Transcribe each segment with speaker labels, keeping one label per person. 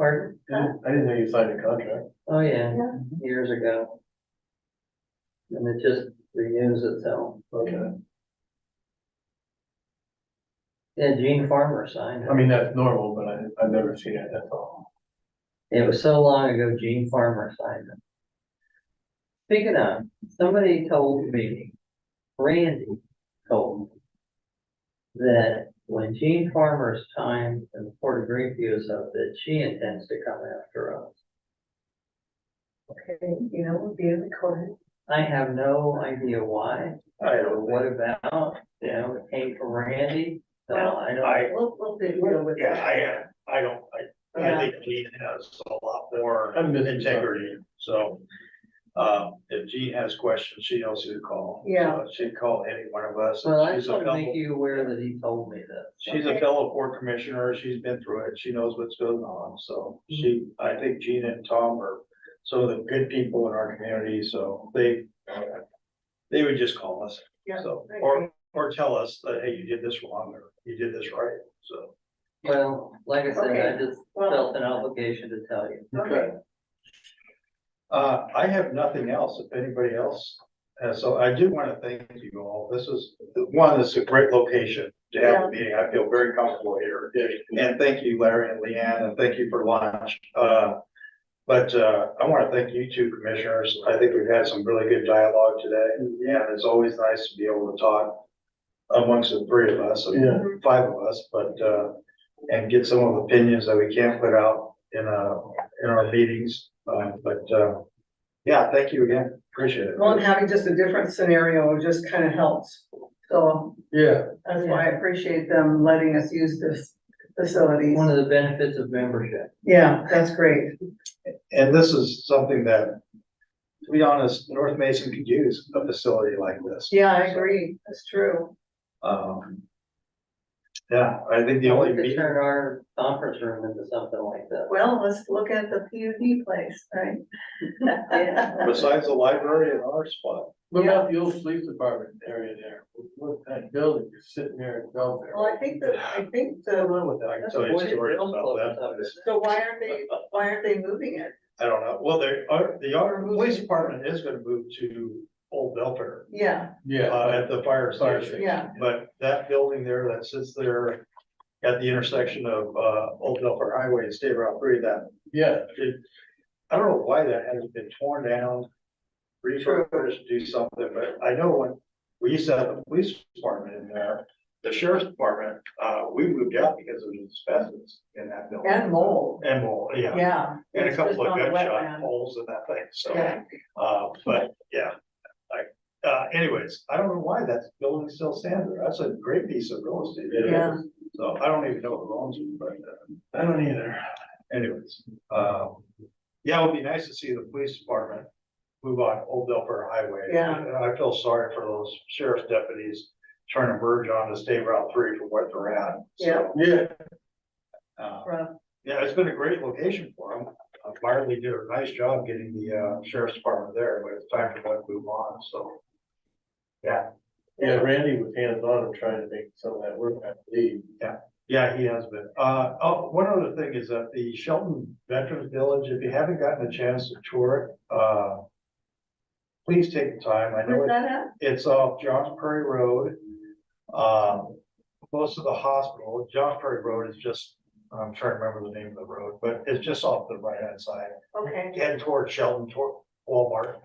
Speaker 1: Pardon?
Speaker 2: I didn't I didn't know you signed a contract.
Speaker 1: Oh, yeah,
Speaker 3: Yeah.
Speaker 1: years ago. And it just renews itself.
Speaker 2: Okay.
Speaker 1: Yeah, Gene Farmer signed
Speaker 2: I
Speaker 1: it.
Speaker 2: mean, that's normal, but I, I've never seen it, that's all.
Speaker 1: It was so long ago Gene Farmer signed it. Speaking of, somebody told me, Randy told me that when Gene Farmer's time in the Port of Greenview is up, that she intends to come after us.
Speaker 3: Okay, you know, we'll be recorded.
Speaker 1: I have no idea why,
Speaker 2: I
Speaker 1: or
Speaker 2: don't,
Speaker 1: what about, you know, it came from Randy, so I don't.
Speaker 2: I-
Speaker 3: We'll, we'll be.
Speaker 4: Yeah, I, I don't, I, I think Gene has a lot more
Speaker 2: I'm missing something.
Speaker 4: integrity, so. Um, if Gene has questions, she knows who to call.
Speaker 3: Yeah.
Speaker 4: So She'd call any one of us.
Speaker 1: Well, I
Speaker 4: She's
Speaker 1: just
Speaker 4: a
Speaker 1: want to
Speaker 4: fellow,
Speaker 1: make you aware that he told me that.
Speaker 4: she's a fellow board commissioner, she's been through it, she knows what's going on, so
Speaker 1: Mm-hmm.
Speaker 4: she, I think Gene and Tom are some of the good people in our community, so they. They would just call us,
Speaker 3: Yeah.
Speaker 4: so, or, or tell us that, hey, you did this wrong, or you did this right, so.
Speaker 1: Well, like I said, I
Speaker 3: Okay.
Speaker 1: just felt an obligation to tell you.
Speaker 3: Okay.
Speaker 4: Uh, I have nothing else, if anybody else, has so I do wanna thank you all, this is, one, this is a great location to have
Speaker 3: Yeah.
Speaker 4: a meeting, I feel very comfortable here. And thank you, Larry and Leanne, and thank you for lunch, uh, but, uh, I wanna thank you two commissioners, I think we've had some really good dialogue today. Yeah. And it's always nice to be able to talk amongst the three of us, and
Speaker 2: yeah,
Speaker 4: five of us, but, uh, and get some of the opinions that we can't put out in, uh, in our meetings, uh, but, uh, yeah, thank you again, appreciate it.
Speaker 3: Well, and having just a different scenario just kind of helps. So
Speaker 2: yeah,
Speaker 3: that's why I appreciate them letting us use this facility.
Speaker 1: One of the benefits of membership.
Speaker 3: Yeah, that's great.
Speaker 4: And this is something that, to be honest, North Mason could use a facility like this.
Speaker 3: Yeah, I agree. That's true.
Speaker 4: Um, yeah, I think the
Speaker 1: We
Speaker 4: only
Speaker 1: could
Speaker 4: meeting,
Speaker 1: turn our conference room into something like that.
Speaker 3: Well, let's look at the PUD place, right?
Speaker 4: besides the library and our spot,
Speaker 2: what about the old police department area there, what that building, you're sitting there in Belleville.
Speaker 3: Well, I think that, I think
Speaker 4: I don't
Speaker 3: the,
Speaker 4: know what that, I can
Speaker 1: That's
Speaker 4: tell
Speaker 1: a
Speaker 4: you
Speaker 1: boys'
Speaker 4: stories
Speaker 1: girls
Speaker 4: about
Speaker 1: club
Speaker 4: that.
Speaker 1: or something.
Speaker 3: so why aren't they, why aren't they moving it?
Speaker 4: I don't know, well, there are, the our police department is gonna move to Old Belfair.
Speaker 3: Yeah,
Speaker 4: uh,
Speaker 2: Yeah,
Speaker 4: at the fire
Speaker 2: Fire
Speaker 4: station.
Speaker 3: yeah,
Speaker 4: But that building there that sits there at the intersection of, uh, Old Delphi Highway and State Route three, that,
Speaker 2: yeah,
Speaker 4: it, I don't know why that hasn't been torn down. Refurbished, do something, but I know when we used to have the police department in there, the sheriff's department, uh, we moved out because of asbestos in that building.
Speaker 3: and mold,
Speaker 4: And mold, yeah,
Speaker 3: yeah.
Speaker 4: and a
Speaker 3: It's
Speaker 4: couple
Speaker 3: just
Speaker 4: of
Speaker 3: on the
Speaker 4: gunshot
Speaker 3: wetland.
Speaker 4: holes in that thing, so.
Speaker 3: Yeah,
Speaker 4: Uh, but yeah, I, uh, anyways, I don't know why that building still stands there. That's a great piece of real estate.
Speaker 3: Yeah.
Speaker 4: So I don't even know who owns it, but uh,
Speaker 2: I don't either,
Speaker 4: anyways, um, yeah, it would be nice to see the police department move on Old Delphi Highway.
Speaker 3: Yeah.
Speaker 4: And I feel sorry for those sheriff's deputies trying to merge on the state route three from what they're at. So,
Speaker 2: yeah,
Speaker 4: uh,
Speaker 3: rough.
Speaker 4: Yeah, it's been a great location for them. Marley did a nice job getting the uh, sheriff's department there, but it's time for them to move on, so.
Speaker 2: yeah, Randy was hands on and trying to make some of that work, I believe.
Speaker 4: Yeah, he has been. Uh, oh, one other thing is that the Shelton Veterans Village, if you haven't gotten a chance to tour it, uh. Please take the time. I know
Speaker 3: Where's
Speaker 4: it-
Speaker 3: that at?
Speaker 4: it's off Johns Prairie Road. Um, close to the hospital. Johns Prairie Road is just, I'm trying to remember the name of the road, but it's just off the right hand side
Speaker 3: Okay.
Speaker 4: head toward Shelton, toward Walmart.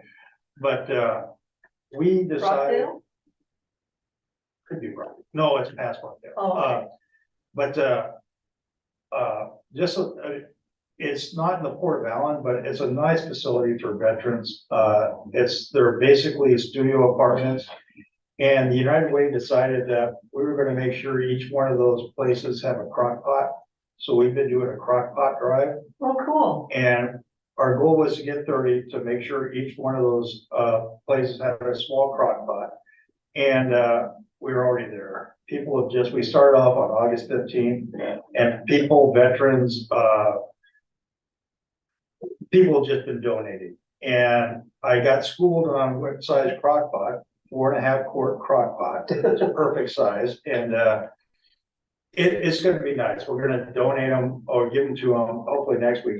Speaker 4: But, uh, we decided.
Speaker 3: Rockdale?
Speaker 4: Could be wrong. No, it's past one there.
Speaker 3: Oh, okay.
Speaker 4: Uh, But, uh, uh, just, uh, it's not in the Port of Allen, but it's a nice facility for veterans. Uh, it's, they're basically studio apartments. And the United Way decided that we were gonna make sure each one of those places have a crock pot. So we've been doing a crock pot drive.
Speaker 3: Well, Oh, cool.
Speaker 4: And our goal was to get thirty to make sure each one of those uh places had a small crock pot. And uh, we were already there. People have just, we started off on August fifteenth and people, veterans, uh. People have just been donating and I got schooled on what size crock pot, four and a half quart crock pot. It's a perfect size and uh. It, it's gonna be nice. We're gonna donate them or give them to them hopefully next week.